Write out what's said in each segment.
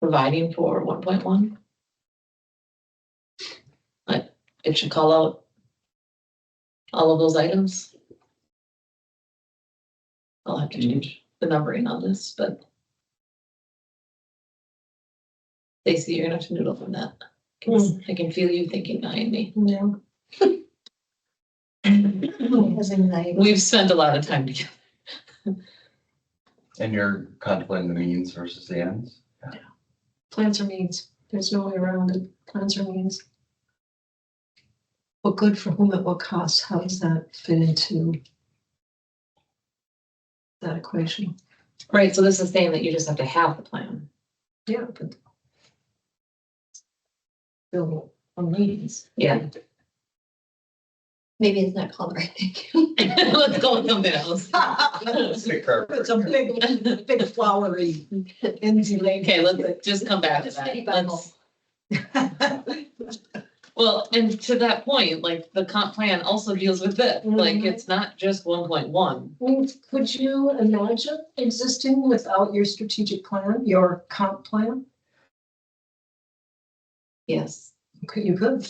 providing for one point one. But it should call out all of those items. I'll have to change the numbering on this, but Stacy, you're gonna have to noodle from that. 'cause I can feel you thinking behind me. Yeah. Mm-hmm. Has anxiety. We've spent a lot of time together. And you're contemplating the means versus the ends? Plans or means. There's no way around it. Plans or means. What good for whom at what cost? How does that fit into that equation? Right, so this is saying that you just have to have the plan. Yeah, but. Bill, on means. Yeah. Maybe it's not called right thank Let's go with something else. It's a big, big flowery, Enzy lady. Okay, let's just come back to Just pity that. bundle. Let's- Well, and to that point, like the comp plan also deals with this, like Mhm. it's not just one point one. I mean, Could you imagine existing without your strategic plan, your comp plan? Yes. Could you could?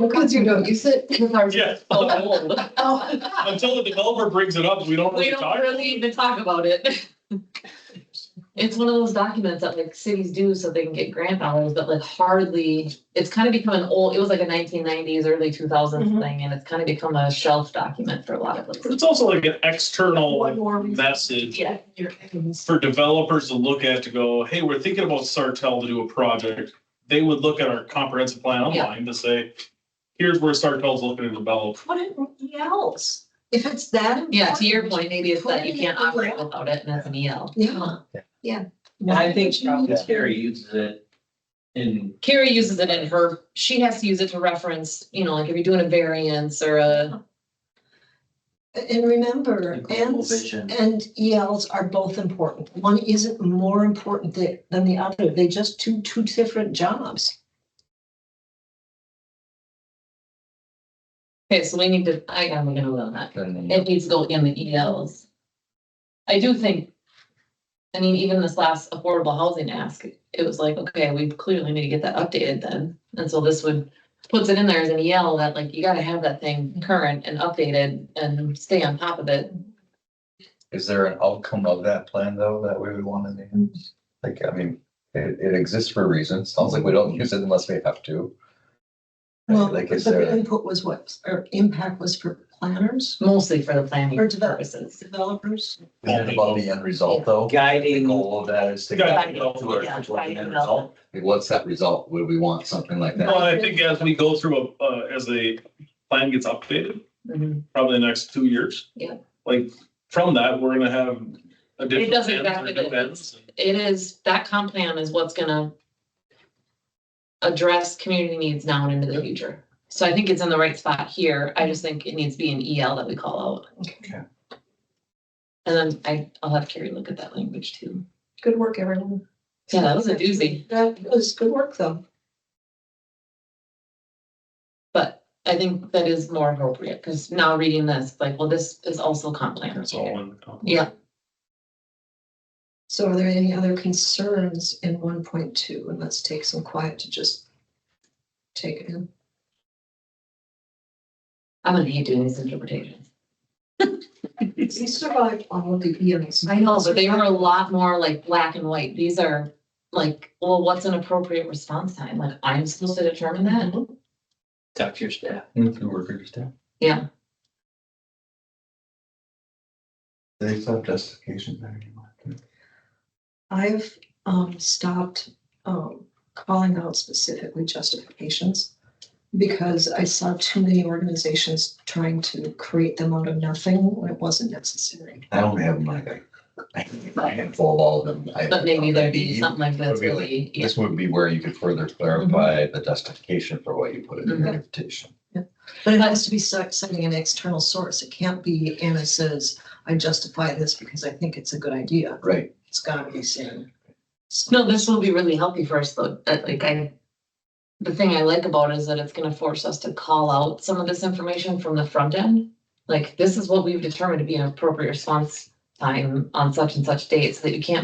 Because you don't use it. Yes. Oh, Until the developer brings it up, we don't We really talk. don't really even talk about it. It's one of those documents that like cities do so they can get grant dollars, but like hardly, it's kind of become an old, it was like a nineteen nineties, early two thousands Mhm. thing, and it's kind of become a shelf document for a lot of But places. It's also like an Oh, external One like, more reason. message Yeah, Your enemies. for developers to look at to go, hey, we're thinking about Sartell to do a project. They would look at our comprehensive plan Yeah. online to say, here's where Sartell's looking to develop. Put it in else. If it's that. yeah, to your point, important, maybe it's that you Put it can't in the operate ground. without it and that's an E EL. Yeah, yeah. And I Why think would you need to? Terry uses it in, Carrie uses it in her, she has to use it to reference, you know, like if you're doing a variance or a, Uh, And remember, And global ends vision. and ELs are both important. One isn't more important th- than the other. They just do two different jobs. okay, so we need to, I, I'm gonna vote on that. Then the- It needs to go in the ELs. I do think, I mean, even this last affordable housing ask, it was like, okay, we clearly need to get that updated then. And so this would, puts it in there as an EL that like, you gotta have that thing current and updated and stay on top of it. Is there an outcome of that plan though, that we would want in the ends? Like, I mean, it, it exists for a reason. Sounds like we don't use it unless we have to. Well, Like, but is the there- input was what, or impact was for planners, Mostly for the planning Or develop. purposes. developers? Is it about the end result though? guiding The goal of that is to Yeah. guide you to our- Yeah, towards the end guiding result. Like, What's that result? Would we want something like Well, that? I think as we go through, a- uh, as the plan gets updated, Mhm. probably the next two years. Yeah. Like, from that, we're gonna have additional. doesn't ends or factor new the- ends. It is, that comp plan is what's gonna address community needs now and into the future. So I think it's in the right spot here. I just think it needs to be an EL that we call out. Okay. And then I, I'll have Carrie look at that language too. Good work, everyone. Yeah, that was a doozy, That was good work though. but I think that is more appropriate, because now reading this, like, well, this is also comp plan. That's all one. company. Yeah, So are there any other concerns in one point two? And let's take some quiet to just take it in. I'm gonna hate doing these interpretations. He survived all of the E EMS. I know, but they were a lot more like black and white. These are like, well, what's an appropriate response time? Like, I'm supposed to determine that? Talk to your staff. Mm-hmm. If you were to understand. Yeah, They have justification there. I've um stopped um calling out specifically justifications. Because I saw too many organizations trying to create them out of nothing when it wasn't necessary. I only have like a a handful of all of them. I- but maybe there'd be Maybe. something like this Maybe like really, yeah. Mm-hmm. This would be where you could further clarify the justification for what you put in your Mhm. invitation. But But it has to be cit- citing an external source. It can't be Anna says, I justify this because I think it's a good idea. Right. It's gotta be seen. No, this will be really healthy for us though, that like I, the thing I like about it is that it's gonna force us to call out some of this information from the front end. Like, this is what we've determined to be an appropriate response time on such and such date, so that you can't